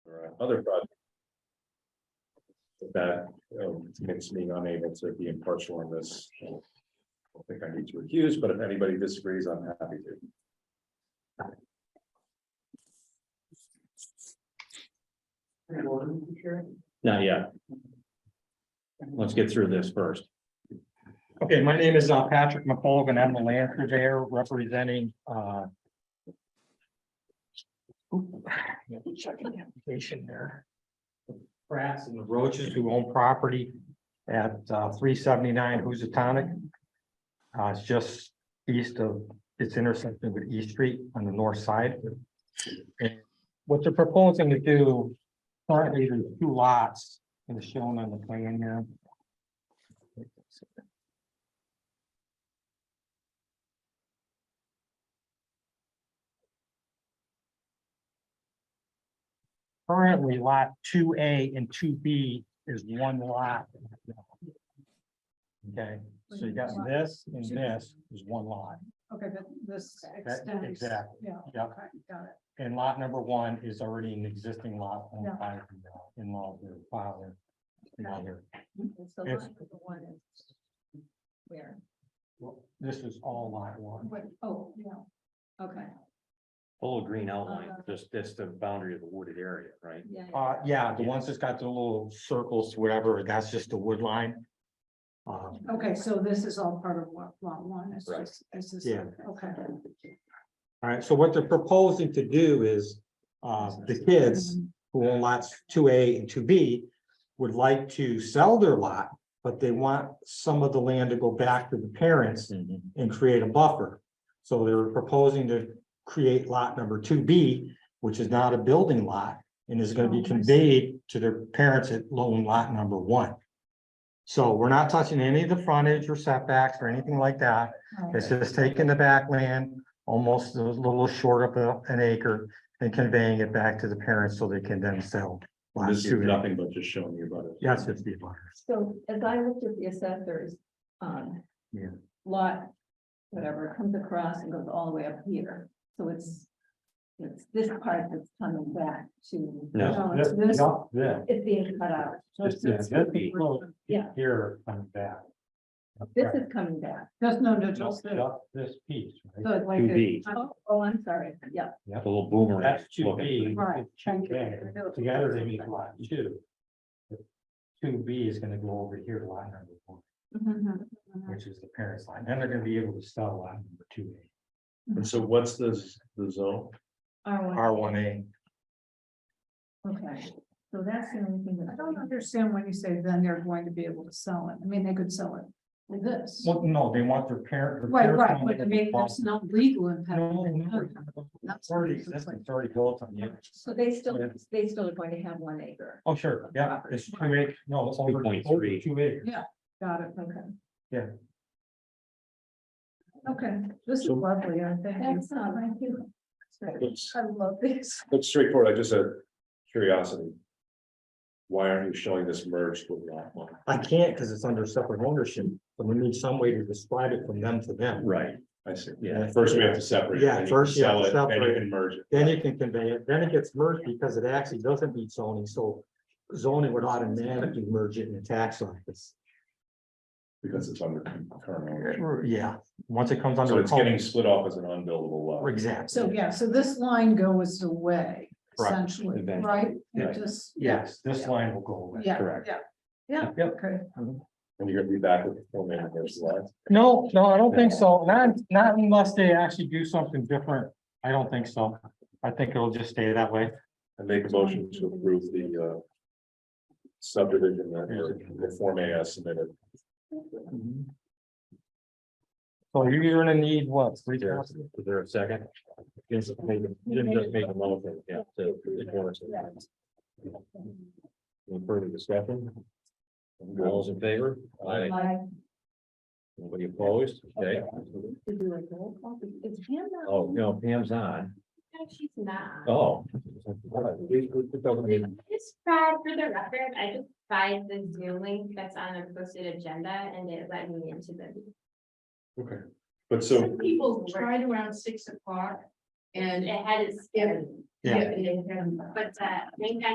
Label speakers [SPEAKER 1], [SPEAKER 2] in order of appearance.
[SPEAKER 1] uh, other project. That um, makes me unable to be impartial on this. I don't think I need to accuse, but if anybody disagrees, I'm happy to.
[SPEAKER 2] Not yet. Let's get through this first.
[SPEAKER 3] Okay, my name is uh, Patrick McColgan. I'm the land surveyor representing uh. oop, Let me check the application there. Brats and the Roaches who own property at uh, three seventy-nine Housatonic. Uh, it's just east of its intersection with East Street on the north side. And What they're proposing to do, currently there's two lots and it's shown on the plan here. Currently, lot two A and two B is one lot. Okay, so you got this and this is one lot,
[SPEAKER 4] Okay, but this extends.
[SPEAKER 3] exactly.
[SPEAKER 4] Yeah,
[SPEAKER 3] Yep.
[SPEAKER 4] okay, got it.
[SPEAKER 3] and lot number one is already an existing lot
[SPEAKER 4] Yeah.
[SPEAKER 3] owned by the uh, in-law, the father. the mother.
[SPEAKER 4] It's the
[SPEAKER 3] Yes.
[SPEAKER 4] line with the one is Where,
[SPEAKER 3] Well, This is all lot one.
[SPEAKER 4] what, oh, yeah, okay,
[SPEAKER 2] Whole green outline, just that's the boundary of the wooded area, right?
[SPEAKER 4] yeah.
[SPEAKER 3] Uh, yeah, the ones that's got the little circles, whatever, that's just the wood line. Um,
[SPEAKER 4] Okay, so this is all part of lot, lot one, it's
[SPEAKER 2] Right.
[SPEAKER 4] just, this is,
[SPEAKER 3] Yeah.
[SPEAKER 4] okay.
[SPEAKER 3] all right, so what they're proposing to do is, uh, the kids
[SPEAKER 4] Um,
[SPEAKER 3] who own lots two A and two B would like to sell their lot, but they want some of the land to go back to the parents
[SPEAKER 1] Mm-hmm.
[SPEAKER 3] and create a buffer. So they were proposing to create lot number two B, which is not a building lot and is gonna
[SPEAKER 4] Oh,
[SPEAKER 3] be
[SPEAKER 4] I see.
[SPEAKER 3] conveyed to their parents at loan lot number one. So we're not touching any of the frontage or setbacks or anything like that.
[SPEAKER 4] Oh,
[SPEAKER 3] It's just taking the backland, almost a little short of a- an acre and conveying it back to the parents so they can then sell. lot
[SPEAKER 1] This is
[SPEAKER 3] two A.
[SPEAKER 1] nothing but just showing you about it.
[SPEAKER 3] Yes, it's the abutters.
[SPEAKER 5] So as I looked at the assessors, um.
[SPEAKER 3] Yeah.
[SPEAKER 5] Lot, whatever, comes across and goes all the way up here, so it's. It's this part that's coming back to.
[SPEAKER 2] No.
[SPEAKER 4] it's this,
[SPEAKER 3] Yeah.
[SPEAKER 5] It's being cut out,
[SPEAKER 4] just
[SPEAKER 3] yeah,
[SPEAKER 4] this-
[SPEAKER 3] that'd be close.
[SPEAKER 5] Yeah.
[SPEAKER 3] Here on that.
[SPEAKER 5] this is coming back,
[SPEAKER 4] There's no
[SPEAKER 3] No,
[SPEAKER 4] neutral. So
[SPEAKER 3] just This piece, right?
[SPEAKER 4] it's like
[SPEAKER 2] Two
[SPEAKER 4] a-
[SPEAKER 2] B,
[SPEAKER 5] oh, oh, I'm sorry, yeah,
[SPEAKER 2] the little boomerang.
[SPEAKER 3] That's two
[SPEAKER 2] Look at-
[SPEAKER 3] B.
[SPEAKER 4] Right.
[SPEAKER 3] Two A, together they make lot two. Two B is gonna go over here to lot number one,
[SPEAKER 4] Mhm, mhm.
[SPEAKER 3] which is the parents line, then they're gonna be able to sell lot number two
[SPEAKER 1] And so what's this, the zone?
[SPEAKER 5] R
[SPEAKER 3] A.
[SPEAKER 5] one,
[SPEAKER 3] R one A.
[SPEAKER 5] okay, so that's the only thing that.
[SPEAKER 4] I don't understand when you say then they're going to be able to sell it, I mean, they could sell it with this.
[SPEAKER 3] Well, no, they want their parent. their
[SPEAKER 4] Right,
[SPEAKER 3] parents
[SPEAKER 4] right,
[SPEAKER 3] want
[SPEAKER 4] but I
[SPEAKER 3] them to
[SPEAKER 4] mean,
[SPEAKER 3] bump-
[SPEAKER 4] there's no legal impact.
[SPEAKER 3] No, no, it's already existing, it's already built on you.
[SPEAKER 5] So they still, they still are going to have one acre,
[SPEAKER 3] Oh, sure, yeah, it's two acre, no, it's over, over
[SPEAKER 2] 2.3.
[SPEAKER 3] two acres.
[SPEAKER 4] Got it,
[SPEAKER 5] okay,
[SPEAKER 4] okay, this is
[SPEAKER 1] So-
[SPEAKER 4] lovely, I think.
[SPEAKER 5] that's, um, thank you.
[SPEAKER 1] Looks,
[SPEAKER 4] uh, I love this.
[SPEAKER 1] looks straightforward. I just had curiosity. Why aren't you showing this merged with lot one?
[SPEAKER 3] I can't, cause it's under separate ownership, but we need some way to describe it from them to them.
[SPEAKER 2] Right,
[SPEAKER 1] I see.
[SPEAKER 2] yeah.
[SPEAKER 1] First, we have to separate. it,
[SPEAKER 3] Yeah,
[SPEAKER 1] then you can
[SPEAKER 3] first, yeah,
[SPEAKER 1] sell it, Then you
[SPEAKER 3] separate.
[SPEAKER 1] can merge it.
[SPEAKER 3] Then you can convey it, then it gets merged because it actually doesn't meet zoning, so zoning would automatically merge it in the tax office.
[SPEAKER 1] Because it's under current ownership.
[SPEAKER 3] Or, Yeah, once it comes under.
[SPEAKER 1] So it's
[SPEAKER 3] code.
[SPEAKER 1] getting split off as an unbuildable lot.
[SPEAKER 3] Exactly,
[SPEAKER 4] So, yeah, so this line goes away
[SPEAKER 3] Right.
[SPEAKER 4] essentially,
[SPEAKER 2] Eventually.
[SPEAKER 4] right?
[SPEAKER 2] Right.
[SPEAKER 4] It just.
[SPEAKER 3] yes, this line will go away.
[SPEAKER 4] Yeah,
[SPEAKER 2] correct.
[SPEAKER 4] yeah, yeah,
[SPEAKER 3] Yep.
[SPEAKER 4] okay.
[SPEAKER 1] And you're gonna be back with the full name of those lots.
[SPEAKER 3] No, no, I don't think so, not, not unless they actually do something different, I don't think so, I think it'll just stay that way.
[SPEAKER 1] I make a motion to approve the uh. Subdivision that the Form A as submitted. Mm-hmm.
[SPEAKER 3] So you're gonna need what, three
[SPEAKER 2] Is there-
[SPEAKER 3] copies?
[SPEAKER 2] is there a second? Jim's just making- Jim just made a motion, yeah, to- to warrant it. Any further discussion? All those in favor? Aye.
[SPEAKER 5] Like,
[SPEAKER 2] Anybody opposed? Okay.
[SPEAKER 5] to do like a roll call, it's him now.
[SPEAKER 2] Oh, no, Pam's on.
[SPEAKER 6] No, she's not.
[SPEAKER 2] Oh.
[SPEAKER 6] Just tried for the record, I just tried the Zoom link that's on the posted agenda and it led me into the.
[SPEAKER 1] Okay. But so,
[SPEAKER 7] People tried around six o'clock and
[SPEAKER 6] It had its.
[SPEAKER 7] Yeah.
[SPEAKER 3] Yeah.
[SPEAKER 6] But, uh, I think I